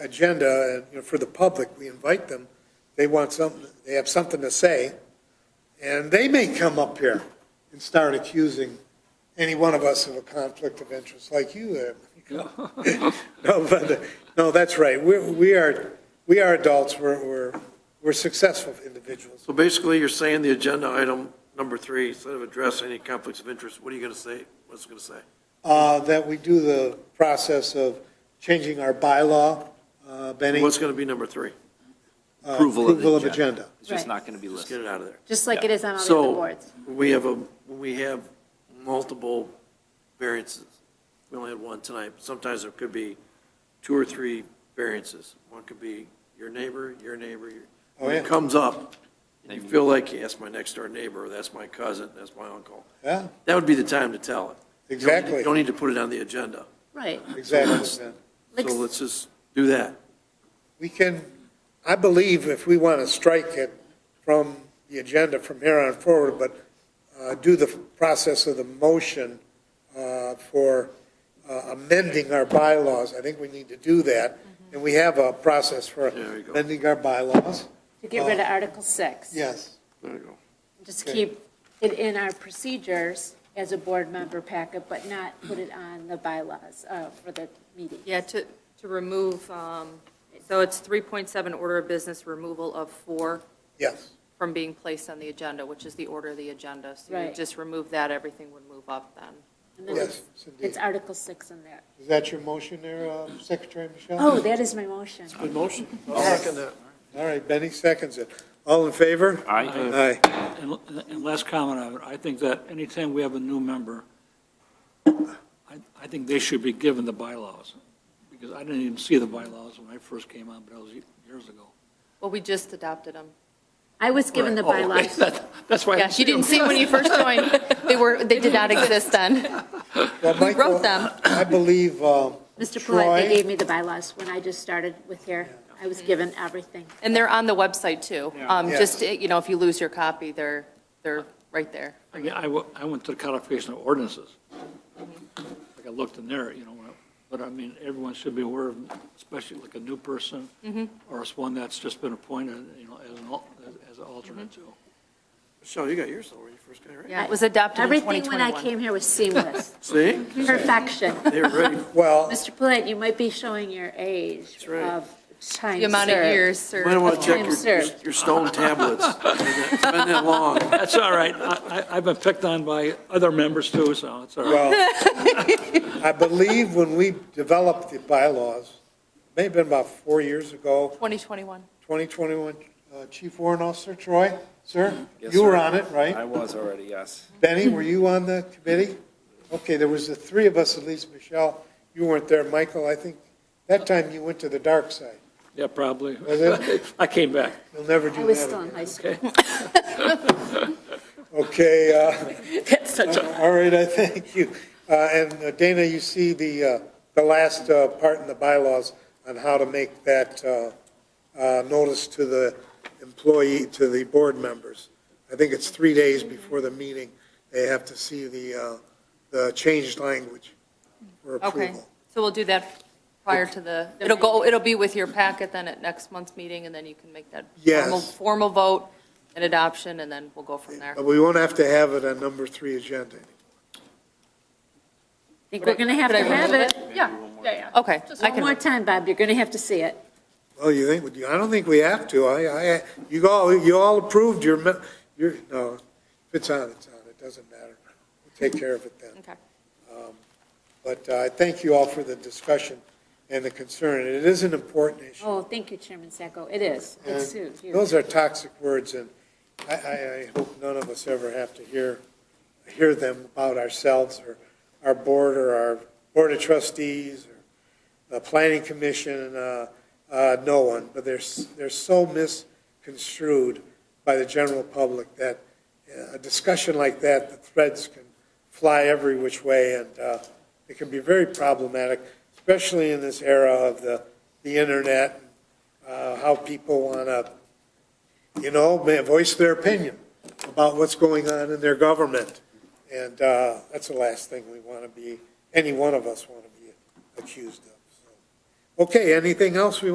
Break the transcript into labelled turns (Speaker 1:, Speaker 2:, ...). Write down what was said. Speaker 1: agenda, and, you know, for the public, we invite them, they want something, they have something to say, and they may come up here and start accusing any one of us of a conflict of interest, like you have. No, but, uh, no, that's right, we, we are, we are adults, we're, we're, we're successful individuals.
Speaker 2: So basically, you're saying the agenda item number three, instead of address any conflicts of interest, what are you going to say? What's it going to say?
Speaker 1: Uh, that we do the process of changing our bylaw, uh, Benny.
Speaker 2: What's going to be number three?
Speaker 1: uh,
Speaker 3: Approval of the
Speaker 1: Approval of
Speaker 3: agenda.
Speaker 1: agenda.
Speaker 3: It's just
Speaker 4: Right.
Speaker 3: not going to be
Speaker 2: Just get
Speaker 3: listed.
Speaker 2: it out of there.
Speaker 4: just like
Speaker 3: Yeah.
Speaker 4: it is on all the
Speaker 2: So-
Speaker 4: other boards.
Speaker 2: We have a, we have multiple variances. We only had one tonight. Sometimes there could be two or three variances. One could be your neighbor, your neighbor, your.
Speaker 1: Oh,
Speaker 2: When it
Speaker 1: yeah.
Speaker 2: comes up, and you feel like, that's my next door neighbor, or that's my cousin, that's my uncle.
Speaker 1: Yeah,
Speaker 2: That would be the time to tell it. You don't need to-
Speaker 1: exactly,
Speaker 2: You don't need to put it on the agenda.
Speaker 4: Right.
Speaker 1: exactly. man.
Speaker 4: Like,
Speaker 2: So let's just do that.
Speaker 1: We can, I believe if we want to strike it from the agenda from here on forward, but uh, do the process of the motion uh, for uh, amending our bylaws, I think we need to do that.
Speaker 4: Mm-hmm.
Speaker 1: And we have a process for
Speaker 2: There you go.
Speaker 1: amending our bylaws.
Speaker 4: to get
Speaker 1: Uh,
Speaker 4: rid of Article 6.
Speaker 1: Yes.
Speaker 2: There you go.
Speaker 4: Just
Speaker 1: Okay.
Speaker 4: keep it in our procedures as a board member packet, but not put it on the bylaws uh, for the meeting.
Speaker 5: Yeah, to, to remove, um, so it's 3.7 order of business removal of four
Speaker 1: Yes.
Speaker 5: from being placed on the agenda, which is the order of the agenda. So you
Speaker 4: Right.
Speaker 5: just remove that, everything would move up then.
Speaker 4: And then
Speaker 1: Yes,
Speaker 4: it's-
Speaker 1: Cindy.
Speaker 4: It's Article 6 in there.
Speaker 1: Is that your motion there, uh, Secretary Michelle?
Speaker 4: Oh, that is my motion.
Speaker 2: Good motion. I'll second that.
Speaker 1: All right, Benny seconds it. All in favor?
Speaker 3: Aye.
Speaker 1: Aye.
Speaker 6: And and last comment on it, I think that anytime we have a new member, I, I think they should be given the bylaws, because I didn't even see the bylaws when I first came on, but that was years ago.
Speaker 5: Well, we just adopted them.
Speaker 4: I was given the
Speaker 6: Oh, okay.
Speaker 4: bylaws.
Speaker 6: That- That's why. I
Speaker 5: Yeah, you didn't see when you first joined. They were, they did not exist then.
Speaker 1: Well, Mike,
Speaker 5: wrote them?
Speaker 1: I believe um,
Speaker 4: Mr. Paulette,
Speaker 1: Troy,
Speaker 4: they gave me the bylaws when I just started with here. I was given everything.
Speaker 5: And they're on the website too. Um,
Speaker 1: Yeah.
Speaker 5: Just, you know, if you lose your copy, they're, they're right there.
Speaker 6: I mean, I, wa- I went to the codification of ordinances. Like, I looked in there, you know, when I- but I mean, everyone should be aware of, especially like a new person,
Speaker 4: Mm-hmm.
Speaker 6: or it's one that's just been appointed, you know, as an, al- as- as an alternate too.
Speaker 2: Michelle, you got yours though, when you first got it, right?
Speaker 5: Yeah, it was adopted in
Speaker 4: Everything when I
Speaker 5: 2021.
Speaker 4: came here was seamless.
Speaker 2: See?
Speaker 4: Perfection.
Speaker 2: They're ready.
Speaker 1: well,
Speaker 4: Mr. Paulette, you might be showing your age
Speaker 2: right.
Speaker 4: of time
Speaker 5: The amount of
Speaker 4: served.
Speaker 5: years
Speaker 2: You
Speaker 5: served.
Speaker 2: might want to check
Speaker 4: Time
Speaker 2: your- your,
Speaker 4: served.
Speaker 2: your stone tablets. It's been that long.
Speaker 6: That's all right. I, I- I've been picked on by other members too, so it's all right.
Speaker 1: well, I believe when we developed the bylaws, may have been about four years ago,
Speaker 5: 2021.
Speaker 1: 2021, uh, Chief Warrant Officer Troy, sir?
Speaker 3: Yes,
Speaker 1: You were
Speaker 3: sir.
Speaker 1: on it,
Speaker 3: I
Speaker 1: right?
Speaker 3: was already, yes.
Speaker 1: Benny, were you on the committee? Okay, there was the three of us, at least, Michelle, you weren't there. Michael, I think, that time you went to the dark side.
Speaker 6: Yeah, probably.
Speaker 1: Was it?
Speaker 6: I came back.
Speaker 1: You'll never
Speaker 4: I
Speaker 1: do
Speaker 4: was
Speaker 1: that
Speaker 4: still in
Speaker 1: again.
Speaker 4: high school.
Speaker 1: Okay, uh,
Speaker 6: That's such a.
Speaker 1: All right, I thank you. Uh, And uh, Dana, you see the, uh, the last uh, part in the bylaws on how to make that uh, uh, notice to the employee, to the board members. I think it's three days before the meeting, they have to see the, uh, the changed language for
Speaker 5: Okay,
Speaker 1: approval.
Speaker 5: so we'll do that prior to the, it'll go, it'll be with your packet then at next month's meeting, and then you can make that
Speaker 1: Yes.
Speaker 5: formal, formal vote and adoption, and then we'll go from there.
Speaker 1: But we won't have to have it on number three agenda.
Speaker 4: Think we're going to have to have it.
Speaker 5: Yeah, okay. I
Speaker 4: One
Speaker 5: can-
Speaker 4: more time, Bob, you're going to have to see it.
Speaker 1: Well, you think, I don't think we have to. I, I, you all, you all approved your, me- your, no, if it's on, it's on, it doesn't matter. We'll take care of it then. Um,
Speaker 5: Okay.
Speaker 1: But uh, I thank you all for the discussion and the concern. It is an important issue.
Speaker 4: Oh, thank you, Chairman Sacco. It is. It's
Speaker 1: And
Speaker 4: huge.
Speaker 1: Those are toxic words, and I, I, I hope none of us ever have to hear, hear them about ourselves or our board or our board of trustees or the planning commission, uh, uh, no one. But they're, s- they're so misconstrued by the general public that uh, a discussion like that, the threads can fly every which way, and uh, it can be very problematic, especially in this era of the, the internet, uh, how people want to, you know, may voice their opinion about what's going on in their government. And uh, that's the last thing we want to be, any one of us want to be accused of. so. Okay, anything else we